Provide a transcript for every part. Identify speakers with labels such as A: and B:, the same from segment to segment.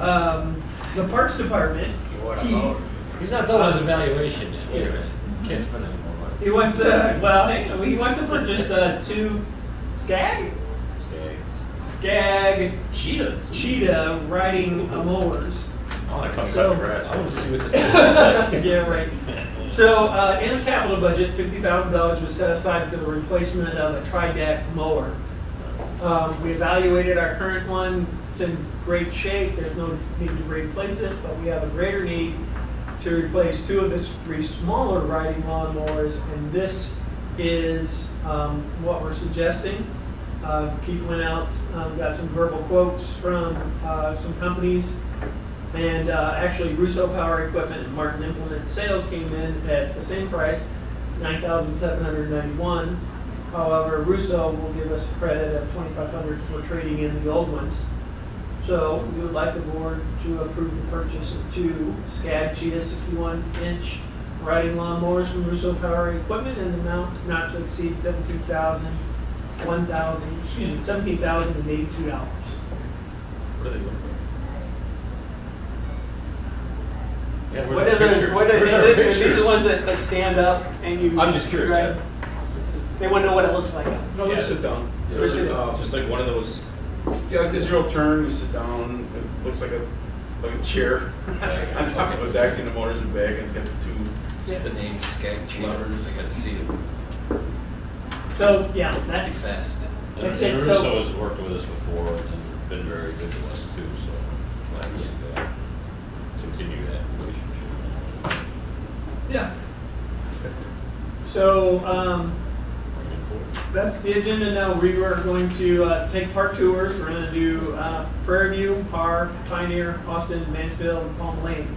A: Um, The Parks Department, he,
B: He's not done with his evaluation yet. Wait a minute. Can't spend any more money.
A: he wants, uh, well, hang on, he wants to put just, uh, two skag? Skag
B: Cheetahs.
A: cheetah riding uh, mowers.
B: I want to come
A: So-
B: cut the grass. I want to see what this thing looks like.
A: Yeah, right. So, uh, in the capital budget, fifty thousand dollars was set aside for the replacement of a tri-deck mower. Um, we evaluated our current one, it's in great shape, there's no need to replace it, but we have a greater need to replace two of the three smaller riding lawnmowers, and this is, um, what we're suggesting. Uh, Keith went out, um, got some verbal quotes from, uh, some companies, and uh, actually, Russo Power Equipment and Martin Implement Sales came in at the same price, nine thousand seven hundred ninety-one. However, Russo will give us a credit of twenty-five hundred for trading in the old ones. So we would like the board to approve the purchase of two SCAD Cheetah sixty-one inch riding lawnmowers from Russo Power Equipment in the amount not to exceed seventeen thousand, one thousand, excuse me, seventeen thousand and eighty-two dollars.
B: What are they looking for? Yeah,
A: What
B: where's
A: is
B: the
A: it,
B: pictures?
A: what
B: Where's
A: is
B: our
A: it, these are the
B: pictures?
A: ones that, that stand up and you.
B: I'm just curious,
A: right? They wanna know what it looks like.
C: No, just sit down.
B: Yeah,
A: Where's it?
C: Uh,
B: Just like one of those.
C: Yeah, like the zero turn, you sit down, it looks like a, like a chair on top of a deck and the motor's in back and it's got the two.
D: Just the name Skag Cheetahs.
C: Lovers.
D: I gotta see it
A: So, yeah,
D: pretty
A: that's,
D: fast.
A: That's
E: And
A: it, so-
E: Russo has worked with us before and been very good to us too, so glad to see that, continue that relationship.
A: yeah. So, um,
E: Bring it forward.
A: that's the agenda now, we are going to, uh, take park tours, we're gonna do, uh, Prairie View, Park, Pioneer, Austin, Mansfield, and Palm Lane,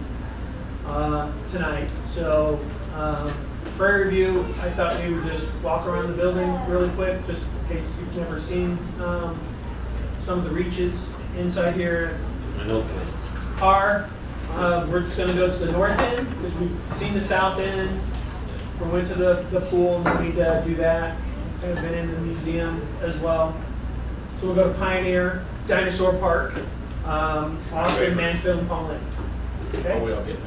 A: uh, tonight. So, um, Prairie View, I thought we would just walk around the building really quick, just in case you've never seen, um, some of the reaches inside here,
B: An open.
A: car. Uh, we're just gonna go to the north end, because we've seen the south end. We went to the, the pool, no need to do that. Kind of been in the museum as well. So we'll go to Pioneer, Dinosaur Park, um, Austin, Mansfield, and Palm Lake.
B: Are
E: Oh,
B: we
A: Okay?
B: all getting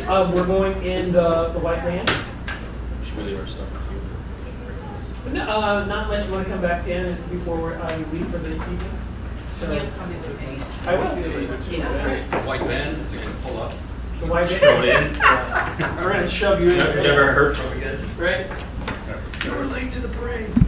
B: there?
A: Uh, we're going in the, the white van.
B: Should we leave our stuff with you?
A: No, uh, not unless you wanna come back in before we're, uh, you leave for the evening.
F: You'll
A: So,
F: tell me what's in it.
A: I will.
F: Yeah.
D: White van, is it gonna pull up?
A: The white van.
E: Throw it in.
A: We're gonna shove you in.
B: Never heard from again.
A: Right?
D: You're late to the parade.